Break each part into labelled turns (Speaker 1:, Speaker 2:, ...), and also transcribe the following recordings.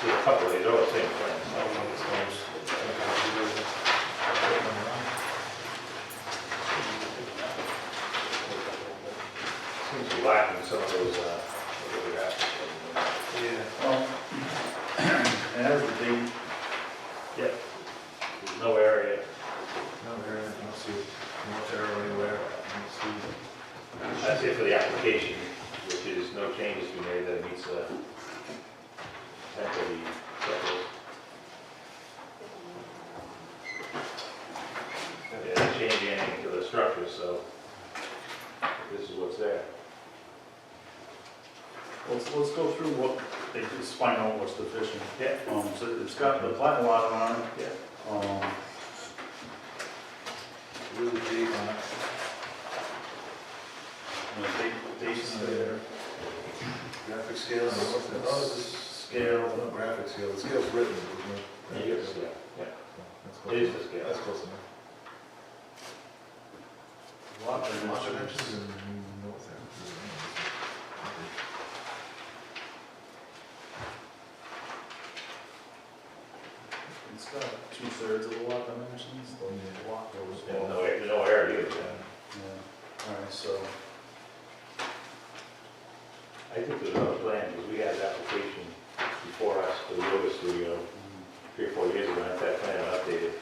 Speaker 1: see a couple of these, all the same thing. Seems to be lacking some of those, uh, photographs.
Speaker 2: And that's the thing,
Speaker 1: There's no area.
Speaker 2: no, there, I don't see much arrow anywhere, I don't see.
Speaker 1: That's it for the application, which is no changes to be made that meets uh, the temporary threshold. Yeah, they didn't change anything to the structure, so this is what's there.
Speaker 3: Let's, let's go through what, they just find out what's deficient.
Speaker 1: Yeah.
Speaker 3: Um, so it's got the plat lot on it.
Speaker 1: Yeah.
Speaker 3: Um,
Speaker 2: Really big on it.
Speaker 3: and the date- dates in there.
Speaker 2: Graphic scale, and what's the, oh, this
Speaker 3: Scale.
Speaker 2: no, graphic scale, the scale's written, isn't it?
Speaker 1: It is, yeah, yeah. It is the scale.
Speaker 2: That's close enough. Lot dimensions and no, that.
Speaker 3: It's got two thirds of the lot dimensions, the lot goes.
Speaker 1: And no, a- no area either.
Speaker 3: Yeah, alright, so,
Speaker 1: I think there's another plan, because we had an application before us for the yoga studio
Speaker 3: um,
Speaker 1: three or four years ago, and that plan updated.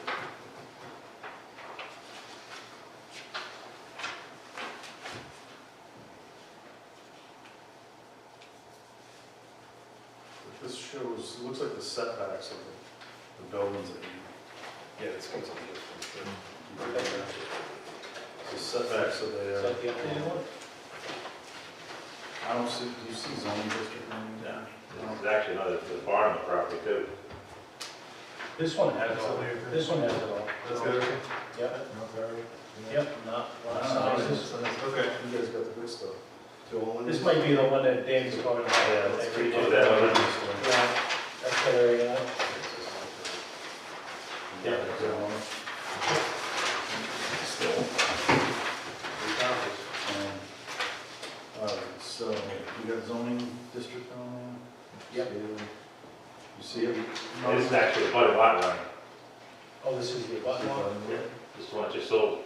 Speaker 3: but this shows, it looks like the setbacks of the- the buildings that you.
Speaker 4: Yeah, this comes up this one.
Speaker 3: The setbacks of
Speaker 4: Is
Speaker 3: the,
Speaker 4: that the updated one?
Speaker 3: I don't see, do you see zoning district? in there?
Speaker 1: Yeah. There's actually another, the barn on the property too.
Speaker 4: This one has it all, this one has it all.
Speaker 2: That's good, okay?
Speaker 4: Yep,
Speaker 2: No, sorry.
Speaker 4: yep, not, not sizes.
Speaker 2: Okay.
Speaker 3: You guys got the good stuff.
Speaker 4: This might be the one that Dan's talking about.
Speaker 3: Yeah, that's pretty
Speaker 4: Every day.
Speaker 1: good. that one.
Speaker 4: Yeah, that's the area.
Speaker 1: Yeah.
Speaker 3: Um,
Speaker 1: Still.
Speaker 3: Um, All right, so you got zoning district on there?
Speaker 4: Yep.
Speaker 3: You see it?
Speaker 1: This is actually a butter lot line.
Speaker 4: Oh, this is the abutment one?
Speaker 1: This one just sold,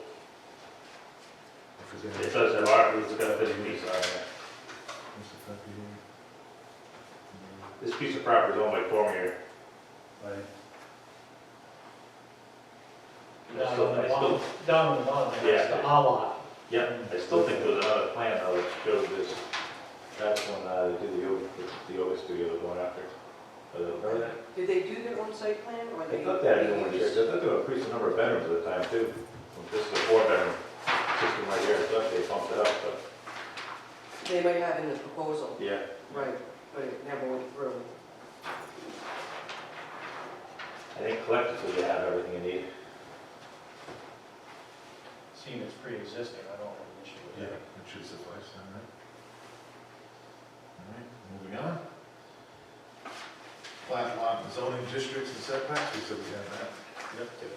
Speaker 2: If it's in there.
Speaker 1: it does have our, it's got a bit of piece on there.
Speaker 2: There's a copy here.
Speaker 1: This piece of property is owned by Cormier.
Speaker 3: Right,
Speaker 4: Down on the bottom, down on the bottom,
Speaker 1: Yeah.
Speaker 4: that's the A lot.
Speaker 1: Yep, I still think there's another plan though that showed this. That's when uh, they did the yoga, the yoga studio was going after. Uh, remember that?
Speaker 5: Did they do their own site plan or they?
Speaker 1: They looked at it in
Speaker 5: they
Speaker 1: one year,
Speaker 5: used-
Speaker 1: they thought they were increasing the number of bedrooms at the time too. This is a four bedroom system right here, I thought they bumped it up, but.
Speaker 5: They might have in the proposal,
Speaker 1: Yeah.
Speaker 5: right, but it never went through.
Speaker 1: I think collectively they have everything you need.
Speaker 4: Seeing it's pre-existing, I don't have an issue with
Speaker 2: Yeah,
Speaker 4: that.
Speaker 2: it should suffice, all right. All right, moving on. Flat lot and zoning districts and setbacks, we said we had that.
Speaker 3: yep.
Speaker 2: Uh,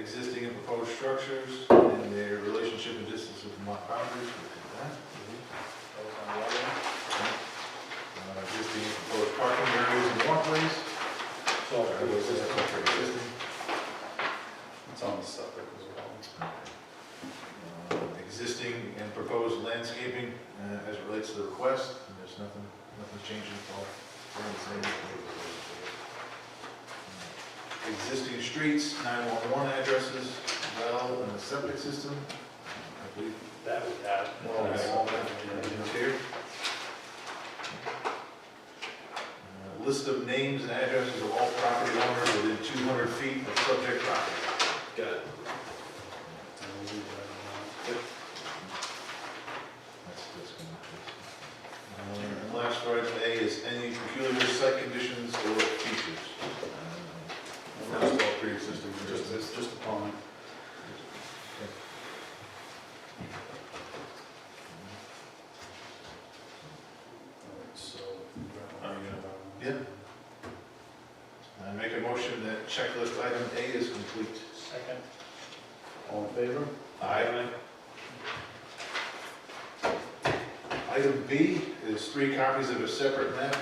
Speaker 2: Existing and proposed structures and their relationship and distance with lot boundaries, we did that.
Speaker 4: That was on the other one.
Speaker 2: Uh, Existing and proposed parking areas and walkways.
Speaker 4: It's all
Speaker 2: That was just
Speaker 4: pre-existing.
Speaker 2: existing.
Speaker 3: It's on the septic as well.
Speaker 2: Uh, Existing and proposed landscaping uh, as it relates to the request, and there's nothing, nothing changing at all. We're in the same. Existing streets, 911 addresses, well, and the septic system, I believe.
Speaker 1: That we have.
Speaker 2: Well,
Speaker 3: Nice.
Speaker 2: all that, uh, is here. Uh, List of names and addresses of all property owners within 200 feet of subject property.
Speaker 4: Got it.
Speaker 2: That's that's gonna be- Um, And last item A is any peculiar site conditions or features. Um, That's all pre-existing,
Speaker 3: Just, it's just a pond. All right, so.
Speaker 2: Are you gonna- Yeah. I make a motion that checklist item A is complete.
Speaker 4: Second.
Speaker 3: All in favor?
Speaker 2: Aye. Item B is three copies of a separate map